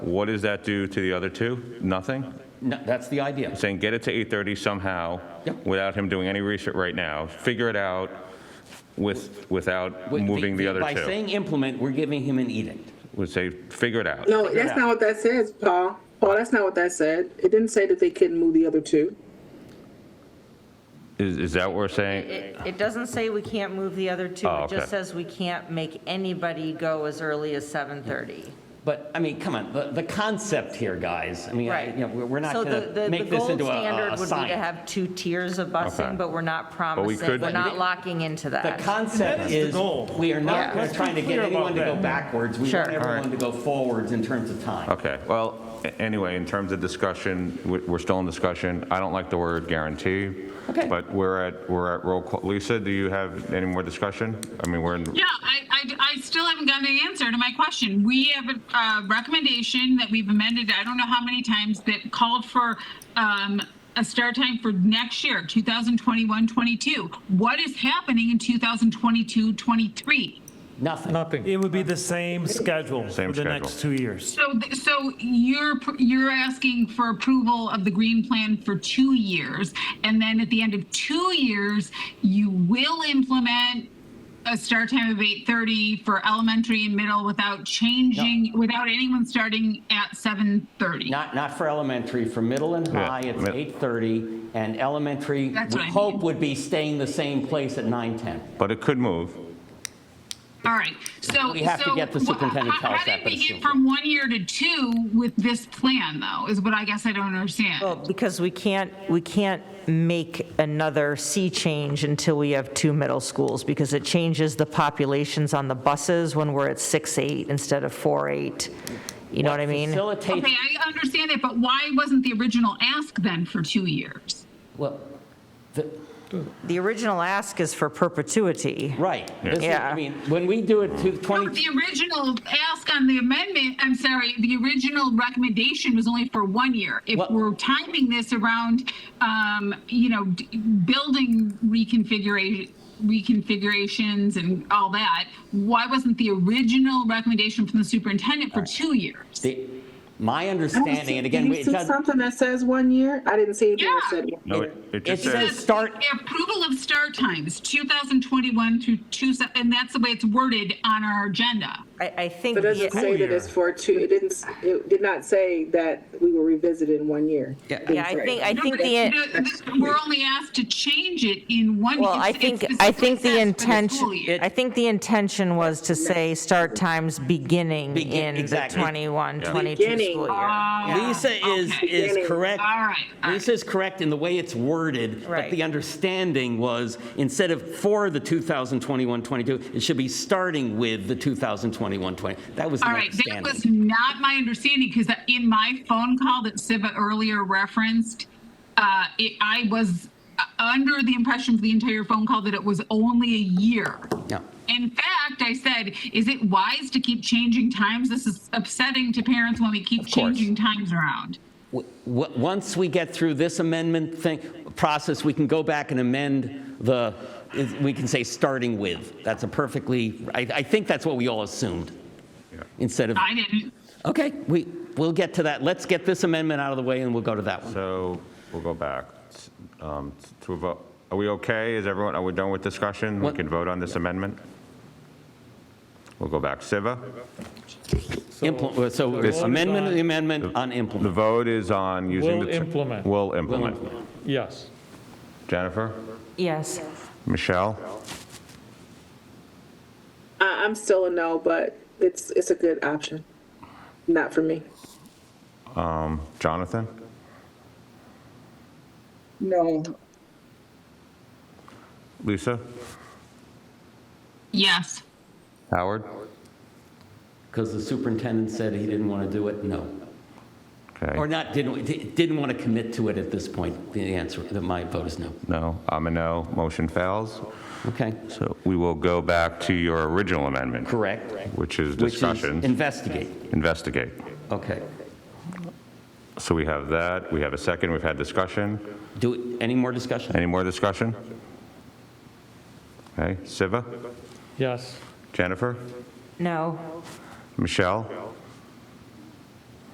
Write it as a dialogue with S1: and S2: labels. S1: What does that do to the other two? Nothing?
S2: No, that's the idea.
S1: Saying get it to 8:30 somehow,
S2: Yep.
S1: without him doing any research right now, figure it out with, without
S2: With-
S1: moving the other
S2: By
S1: two.
S2: saying implement, we're giving him an edict.
S1: Would say, figure it out.
S3: No, that's not what that says, Paul. Paul, that's not what that said. It didn't say that they couldn't move the other two.
S1: Is, is that what we're saying?
S4: It, it doesn't say we can't move the other two.
S1: Oh,
S4: It
S1: okay.
S4: just says we can't make anybody go as early as 7:30.
S2: But, I mean, come on, the, the concept here, guys, I mean, I-
S4: Right.
S2: you know, we're we're not
S4: So the-
S2: going
S4: the-
S2: to make this into a-
S4: The gold
S2: a- a
S4: standard would be to
S2: science.
S4: have two tiers of
S1: Okay.
S4: busing, but we're not
S1: we
S4: promising,
S1: could-
S4: we're not locking into
S2: The
S4: that.
S2: concept is,
S5: goal.
S2: we are not
S4: Yeah.
S2: we're
S4: Let's
S2: trying to get
S5: clear
S2: anyone
S5: about
S2: to go
S5: that.
S2: backwards. We
S4: Sure.
S2: want everyone to go forwards in terms of time.
S1: Okay, well, a- anyway, in terms of discussion, we- we're still in discussion. I don't like the word guarantee.
S2: Okay.
S1: But we're at, we're at roll call. Lisa, do you have any more discussion? I mean, we're in.
S6: Yeah, I, I, I still haven't gotten the answer to my question. We have a uh, recommendation that we've amended, I don't know how many times, that called for um, a start time for next year, 2021, 22. What is happening in 2022, 23?
S2: Nothing.
S5: It would be the same schedule
S1: Same
S5: for the next two
S1: schedule.
S5: years.
S6: So, th- so you're, pr- you're asking for approval of the green plan for two years, and then at the end of two years, you will implement a start time of 8:30 for elementary and middle without changing, without anyone starting at 7:30?
S2: Not, not for elementary, for middle and
S1: Yeah,
S2: high, it's
S1: mid-
S2: 8:30, and elementary,
S6: That's
S2: we
S6: what I
S2: hope
S6: mean.
S2: would be staying the same place at 9:10.
S1: But it could move.
S6: All right, so.
S2: We have to
S6: so
S2: get the
S6: wha-
S2: superintendent to
S6: how-
S2: tell us that,
S6: How
S2: but
S6: did we
S2: it's
S6: get
S2: simple.
S6: from one year to two with this plan, though, is what I guess I don't understand.
S4: Well, because we can't, we can't make another sea change until we have two middle schools, because it changes the populations on the buses when we're at 6-8 instead of 4-8. You know what I mean?
S2: Facilitates,
S6: Okay, I understand that, but why wasn't the original ask then for two years?
S2: well, the-
S4: The original ask is for perpetuity.
S2: right. This is-
S4: Yeah.
S2: I mean, when we do it to
S6: No,
S2: 20,
S6: the original ask on the amendment, I'm sorry, the original recommendation was only for one year. If
S2: What-
S6: we're timing this around, um, you know, d- building reconfiguration, reconfigurations and all that, why wasn't the original recommendation from the superintendent for two years?
S2: the- my
S3: I don't
S2: understanding,
S3: see-
S2: and again,
S3: Did
S2: we-
S3: you
S2: it
S3: see
S2: doesn't.
S3: something that says one year? I didn't see anything that
S6: Yeah.
S3: said one.
S1: No, it it just
S2: It
S1: says.
S2: says start,
S6: Approval of start times, 2021 through two, and that's the way it's worded on our agenda.
S4: I, I think.
S3: It doesn't
S4: the-
S3: say that it's for two, it didn't, s- it did not say that we will revisit in one year.
S4: Yeah, I think, I
S6: No,
S4: think
S6: but
S4: the.
S6: it- th- We're only asked to change it in one.
S4: Well, I
S6: it's-
S4: think,
S6: it's
S4: I think the
S6: specifically set for school
S4: intention,
S6: year.
S4: I think the intention was to say start times beginning
S2: Begin-
S4: in the
S2: exactly.
S4: 21, 22
S3: Beginning.
S4: school year.
S6: Ah,
S2: Lisa is,
S6: okay.
S2: is correct.
S6: All right, all right.
S2: Lisa is correct in the way it's worded, but
S4: Right.
S2: the understanding was, instead of for the 2021-22, it should be starting with the 2021-20. That was the
S6: All right, that was
S2: understanding.
S6: not my understanding because in my phone call that Siva earlier referenced, uh, it, I was uh, under the impression for the entire phone call that it was only a year.
S2: Yeah.
S6: In fact, I said, is it wise to keep changing times? This is upsetting to parents when we keep
S2: Of course.
S6: changing times around.
S2: W- w- Once we get through this amendment thing, process, we can go back and amend the, is- we can say starting with. That's a perfectly, I, I think that's what we all assumed, instead of,
S6: I didn't.
S2: okay, we, we'll get to that. Let's get this amendment out of the way and we'll go to that one.
S1: So we'll go back um, to a vote. Are we okay? Is everyone, are we done with discussion? We
S2: What-
S1: can vote on this amendment? We'll go back. Siva?
S2: Implement, uh, so
S7: the vote is
S2: amendment of
S7: on-
S2: the amendment on
S1: The
S2: implement.
S1: vote is on using the.
S7: Will implement.
S1: Will
S2: Will
S1: implement.
S2: implement.
S7: Yes.
S1: Jennifer?
S4: Yes.
S1: Michelle?
S3: I, I'm still a no, but it's, it's a good option. Not for me.
S1: Jonathan?
S8: No,
S1: Lisa?
S6: Yes.
S1: Howard?
S2: Because the superintendent said he didn't want to do it, no. Or
S1: Okay.
S2: not, didn't, di- didn't want to commit to it at this point. The answer, that my vote is no.
S1: No, I'm a no. Motion fails.
S2: Okay,
S1: So we will go back to your original amendment.
S2: correct.
S1: Which is
S2: Which is
S1: discussion,
S2: Investigate,
S1: investigate.
S2: okay.
S1: So we have that. We have a second. We've had discussion.
S2: Do, any more discussion?
S1: Any more discussion? Okay, Siva,
S7: Yes.
S1: Jennifer,
S4: No.
S1: Michelle,